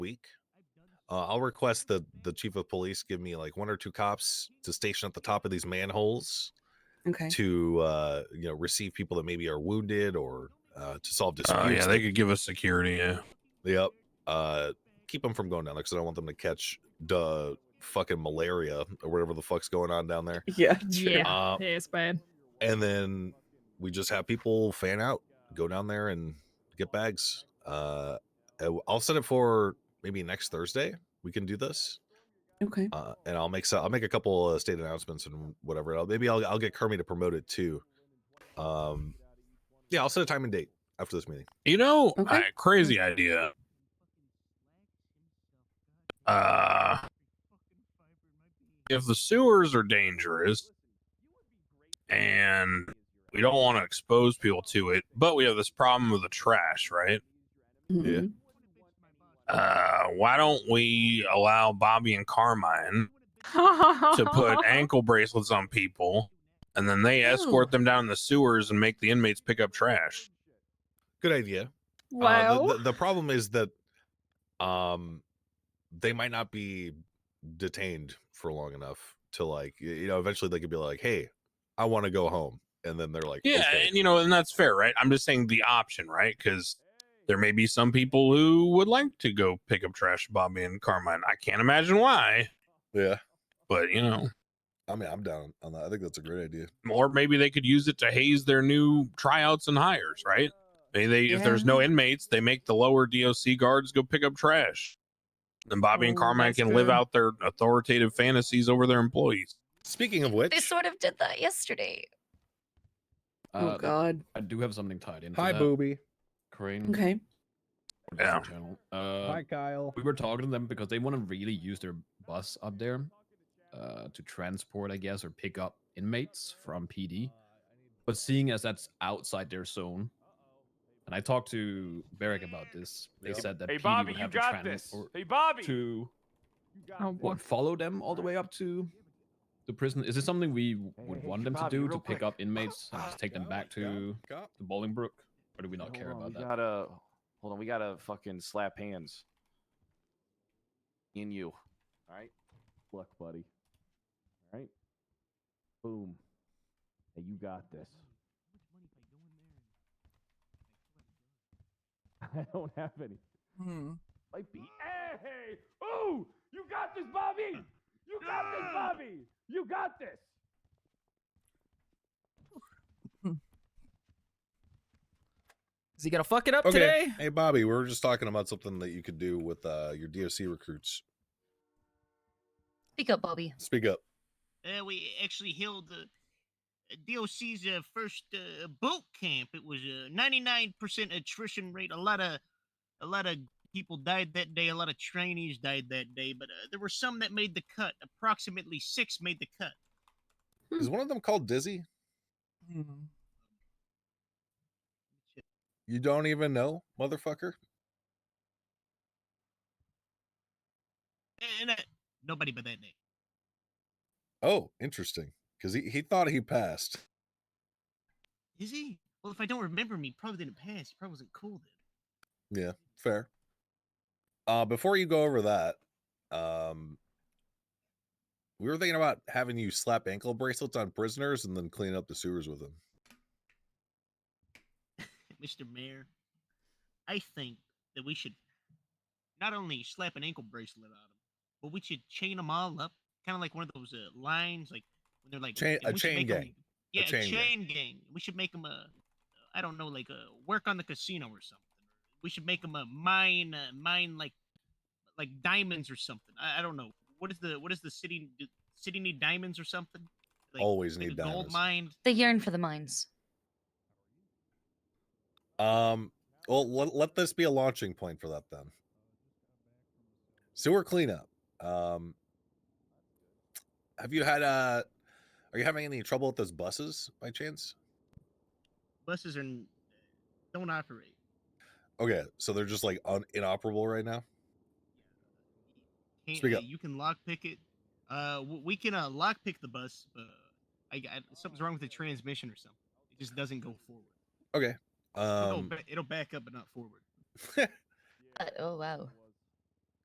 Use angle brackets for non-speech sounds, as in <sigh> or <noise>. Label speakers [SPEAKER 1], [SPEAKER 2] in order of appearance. [SPEAKER 1] week. Uh, I'll request that the chief of police give me like one or two cops to station at the top of these manholes <laughs>
[SPEAKER 2] Okay.
[SPEAKER 1] to uh, you know receive people that maybe are wounded or uh, to solve disputes.
[SPEAKER 3] Oh yeah, they
[SPEAKER 1] that-
[SPEAKER 3] could give us security. Yeah.
[SPEAKER 1] Yep. Uh, keep them from going down there because I don't want them to catch the fucking malaria or whatever the fuck's going on down there.
[SPEAKER 2] Yeah.
[SPEAKER 4] Yeah,
[SPEAKER 1] Uh,
[SPEAKER 4] yeah, it's bad.
[SPEAKER 1] And then we just have people fan out, go down there and get bags. Uh, I w- I'll set it for maybe next Thursday. We can do this,
[SPEAKER 2] Okay.
[SPEAKER 1] uh, and I'll make so I'll make a couple uh, state announcements and whatever. I'll, maybe I'll I'll get Kermit to promote it too. Um, yeah, I'll set a time and date after this meeting.
[SPEAKER 3] You know,
[SPEAKER 2] Okay.
[SPEAKER 3] I- crazy idea. Uh, if the sewers are dangerous and we don't want to expose people to it, but we have this problem with the trash, right?
[SPEAKER 2] Mhm.
[SPEAKER 3] Uh, why don't we allow Bobby and Carmine to
[SPEAKER 4] to <laughs>
[SPEAKER 1] uh,
[SPEAKER 3] put ankle bracelets on people and then they escort them down the sewers and make the inmates pick up trash?
[SPEAKER 1] Good idea. Uh, the-
[SPEAKER 4] Well,
[SPEAKER 1] the, the problem is that um they might not be detained for long enough to like y- you know eventually they could be like hey i want to go home and then they're like
[SPEAKER 3] Yeah,
[SPEAKER 1] "Okay."
[SPEAKER 3] and you know, and that's fair, right? I'm just saying the option, right? Because there may be some people who would like to go pick up trash, Bobby and Carmine. I can't imagine why,
[SPEAKER 1] yeah
[SPEAKER 3] but you know,
[SPEAKER 1] i mean i'm down on that i think that's a great idea
[SPEAKER 3] or maybe they could use it to haze their new tryouts and hires, right? Maybe they, if there's no inmates, they make the lower DOC guards go pick up trash. Then Bobby and
[SPEAKER 4] Oh,
[SPEAKER 3] Carmine
[SPEAKER 4] that's
[SPEAKER 3] can live
[SPEAKER 4] good.
[SPEAKER 3] out their authoritative fantasies over their employees.
[SPEAKER 1] speaking of which
[SPEAKER 5] They sort of did that yesterday.
[SPEAKER 2] Oh
[SPEAKER 6] Uh,
[SPEAKER 2] God.
[SPEAKER 6] I do have something tied in.
[SPEAKER 7] Hi,
[SPEAKER 6] that.
[SPEAKER 7] Booby.
[SPEAKER 6] Crane.
[SPEAKER 2] Okay.
[SPEAKER 6] or
[SPEAKER 3] Yeah.
[SPEAKER 6] Disney Channel. Uh,
[SPEAKER 7] Hi, Kyle.
[SPEAKER 6] we were talking to them because they want to really use their bus up there uh, to transport, I guess, or pick up inmates from PD. But seeing as that's outside their zone, and I talked to Barrick about this, they said that
[SPEAKER 8] Hey
[SPEAKER 6] PD
[SPEAKER 8] Bobby,
[SPEAKER 6] would
[SPEAKER 8] you
[SPEAKER 6] have to
[SPEAKER 8] got this.
[SPEAKER 6] transport
[SPEAKER 8] Hey Bobby.
[SPEAKER 6] to
[SPEAKER 4] oh, boy.
[SPEAKER 6] what, follow them all the way up to the prison. Is this something we w-
[SPEAKER 8] Hey,
[SPEAKER 6] would
[SPEAKER 8] hey,
[SPEAKER 6] want
[SPEAKER 8] hey,
[SPEAKER 6] them
[SPEAKER 8] Bobby,
[SPEAKER 6] to do
[SPEAKER 8] real
[SPEAKER 6] to pick
[SPEAKER 8] quick.
[SPEAKER 6] up inmates and just take them
[SPEAKER 7] Go,
[SPEAKER 6] back
[SPEAKER 7] go,
[SPEAKER 6] to
[SPEAKER 7] go.
[SPEAKER 6] the Bolingbrook? Or do we not
[SPEAKER 8] Hey,
[SPEAKER 6] care
[SPEAKER 8] hold on,
[SPEAKER 6] about
[SPEAKER 8] we
[SPEAKER 6] that?
[SPEAKER 8] Gotta, hold on, we gotta fucking slap hands. In you. All right. Luck, buddy. All right. Boom. Hey, you got this. <laughs> I don't have any. Might be. Hey! Ooh! You got this, Bobby! You got this, Bobby! You got this!
[SPEAKER 9] Is he gonna fuck it up
[SPEAKER 1] okay
[SPEAKER 9] today?
[SPEAKER 1] hey bobby we were just talking about something that you could do with uh your doc recruits
[SPEAKER 5] Speak up, Bobby.
[SPEAKER 1] speak up
[SPEAKER 10] Uh, we actually held uh, uh, DOC's uh, first uh, boot camp. It was a 99% attrition rate. A lot of a lot of people died that day. A lot of trainees died that day, but uh, there were some that made the cut. Approximately six made the cut.
[SPEAKER 1] is one of them called dizzy
[SPEAKER 10] Hmm.
[SPEAKER 1] you don't even know motherfucker
[SPEAKER 10] And uh, nobody but that name.
[SPEAKER 1] oh interesting because he, he thought he passed
[SPEAKER 10] Is he? Well, if I don't remember him, he probably didn't pass. He probably wasn't cool then.
[SPEAKER 1] Yeah, fair. Uh, before you go over that, um, we were thinking about having you slap ankle bracelets on prisoners and then clean up the sewers with them.
[SPEAKER 10] <laughs> Mr. Mayor, I think that we should not only slap an ankle bracelet on them, but we should chain them all up, kind of like one of those uh, lines, like when they're like
[SPEAKER 1] Chain-
[SPEAKER 10] and
[SPEAKER 1] a
[SPEAKER 10] we should
[SPEAKER 1] chain
[SPEAKER 10] make 'em-
[SPEAKER 1] gang.
[SPEAKER 10] yeah, a
[SPEAKER 1] chain
[SPEAKER 10] chain,
[SPEAKER 1] gang.
[SPEAKER 10] gang. We should make them a, I don't know, like a work on the casino or something. We should make them a mine, uh, mine like, like diamonds or something. I, I don't know. What is the what does the city do, city need diamonds or something? Like,
[SPEAKER 1] Always
[SPEAKER 10] like
[SPEAKER 1] need
[SPEAKER 10] a gold
[SPEAKER 1] diamonds.
[SPEAKER 10] mine.
[SPEAKER 5] They yearn for the mines.
[SPEAKER 1] Um, well, let, let this be a launching point for that then. Sewer cleanup. Um, have you had uh, are you having any trouble with those buses by chance?
[SPEAKER 10] Buses are n- don't operate.
[SPEAKER 1] Okay, so they're just like un- inoperable right now.
[SPEAKER 10] Can't-
[SPEAKER 1] Speak
[SPEAKER 10] uh,
[SPEAKER 1] up.
[SPEAKER 10] You can lockpick it. Uh, w- we can uh, lockpick the bus. But I, I something's wrong with the transmission or something. It just doesn't go forward.
[SPEAKER 1] Okay.
[SPEAKER 10] It'll,
[SPEAKER 1] Um,
[SPEAKER 10] ba- it'll back up but not forward.
[SPEAKER 5] Uh, oh wow.